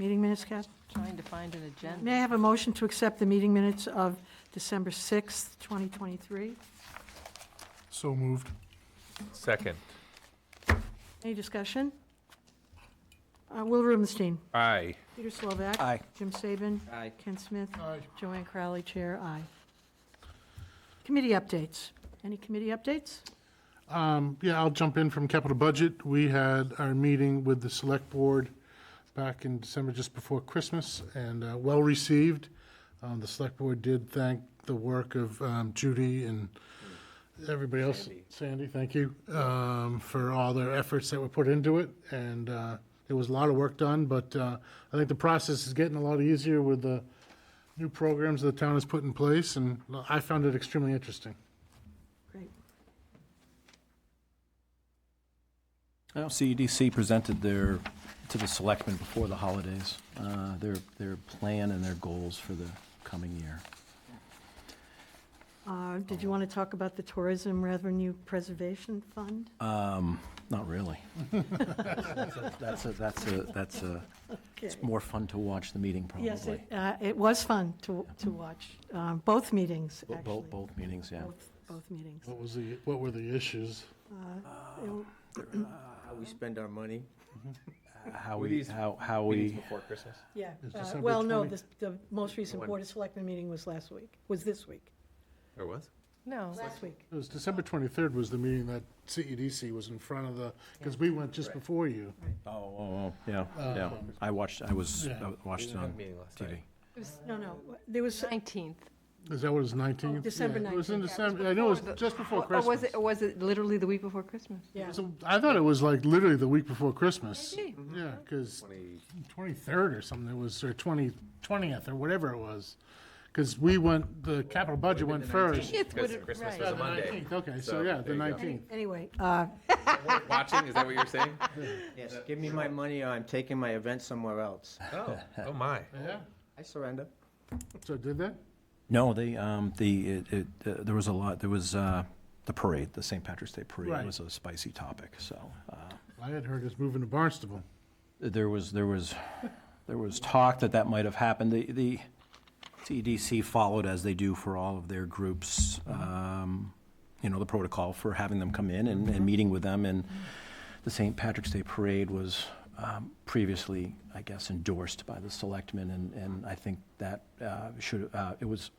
minutes, Kath? Trying to find an agenda. May I have a motion to accept the meeting minutes of December 6th, 2023? So moved. Second. Any discussion? Uh, Will Rubenstein. Aye. Peter Slovak. Aye. Jim Saban. Aye. Ken Smith. Aye. Joanne Crowley, Chair, aye. Committee updates. Any committee updates? Um, Yeah, I'll jump in from capital budget. We had our meeting with the select board back in December, just before Christmas, and uh, well-received. Um, The select board did thank the work of um, Judy and everybody else, Sandy, thank you, um, for all their efforts that were put into it. And uh, there was a lot of work done, but uh, I think the process is getting a lot easier with the new programs the town has put in place, and I found it extremely interesting. Great. Well, CEDC E presented their, to the selectmen before the holidays, uh, their, their plan and their goals for the coming year. Uh, Did you want to talk about the Tourism Revenue Preservation Fund? Um, Not really. That's a, that's a, that's a, it's more fun to watch the meeting probably. Yes, it, uh, it was fun to, to watch, um, both meetings, Bo- bo- actually. Both meetings, yeah. Both- Both meetings. Uh, What was the, what were the issues? It- How we spend our money. Uh, How Were we, these how, how Meetings we, before Christmas? Yeah, It's uh, December well, no, 20. this- the most recent One. Board of Selectmen meeting was last week, was this week, There was? No. last week. It was December 23rd was the meeting that CEDC was in front of the, because we went just before you. oh, oh, oh, yeah, yeah. Um, I watched, I was, Yeah. I We watched it didn't have a on meeting last TV. night. No, no, there was, 19th. Is that what it was, 19th? December Yeah, It was in 19th. December, I know it before was the- just before Or was Christmas. it, or was it literally the week before Christmas? yeah, So I thought it was like literally the week before Christmas. Maybe. Mm-hmm. Yeah, because Twenty- 23rd or something, it was, or 20, 20th or whatever it was. Because we went, the capital budget went first. It Because would- right. Christmas was Yeah, a the Monday. 19th, Okay, so So, yeah, the there you go. 19th. anyway, uh, Watching, is that what you're saying? Yes, give me my money or I'm taking my event somewhere else. Oh, oh my. Yeah, I surrender. so did that? No, they, um, the, it, it, uh, there was a lot, there was, uh, the parade, the St. Patrick's Day Right. Parade was a spicy topic, so, uh, I had heard it's moving to Barnstable. there was, there was, there was talk that that might have happened. The, the CDC followed, as they do for all of their groups, um, you know, the protocol for having them come in and, and meeting with them, and the St. Patrick's Day Parade was, um, previously, I guess, endorsed by the selectmen, and, and I think that, uh, should, uh, it was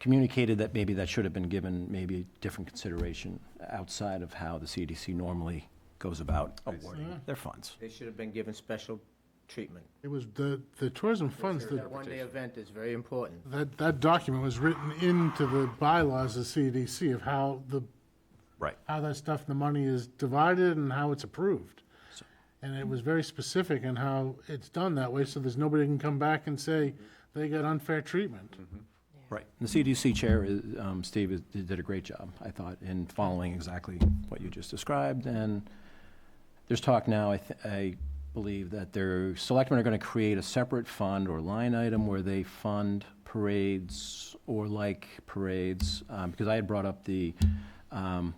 communicated that maybe that should have been given maybe different consideration outside of how the CDC normally goes about awarding their funds. They should have been given special treatment. It was the, the tourism funds that That one-day event is very important. That, that document was written into the bylaws of CDC of how the, Right. how that stuff, the money is divided and how it's approved. So- And it was very specific in how it's done that way, so there's nobody can come back and say they got unfair treatment. Right. The CDC chair, is, um, Steve, is- did a great job, I thought, in following exactly what you just described. And there's talk now, I, th- I believe, that their selectmen are going to create a separate fund or line item where they fund parades or like parades. Um, because I had brought up the, um,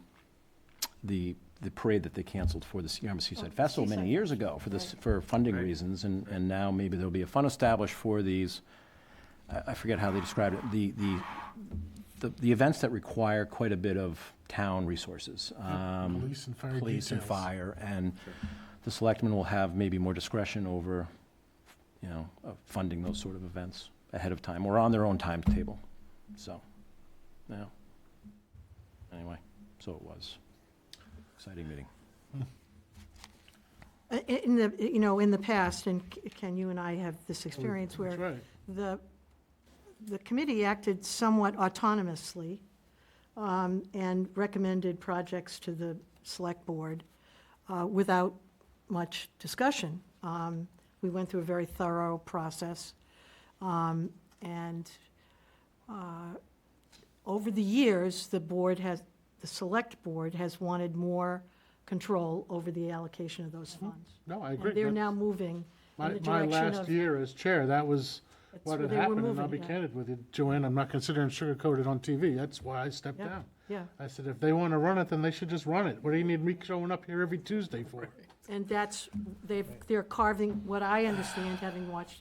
the, the parade that they canceled for the CMC Seaside Festival many years ago for this, for funding reasons. And, and now maybe there'll be a fund established for these, I, I forget how they described it, the, the, the, the events that require quite a bit of town resources. Um, Police and fire police and details. fire, and the selectmen will have maybe more discretion over, you know, uh, funding those sort of events ahead of time, or on their own timetable, so, yeah. Anyway, so it was. Exciting meeting. i- in the, you know, in the past, and K- Ken, you and I have this experience where That's right. the, the committee acted somewhat autonomously um, and recommended projects to the select board uh, without much discussion. Um, We went through a very thorough process. um, And uh, over the years, the board has, the select board has wanted more control over the allocation of those funds. No, I agree. And they're Mm-hmm. That's now moving in My, the my direction last of year as chair, that was That's what where had they were happened, and moving, I'll be yeah. candid with you, Joanne, I'm not considering sugarcoated on TV, that's why I stepped Yeah. down. Yeah, I said, if they want to run it, then they should just run it. What do you need me showing up here every Tuesday for? and that's, they've, they're carving, what I understand, having watched it.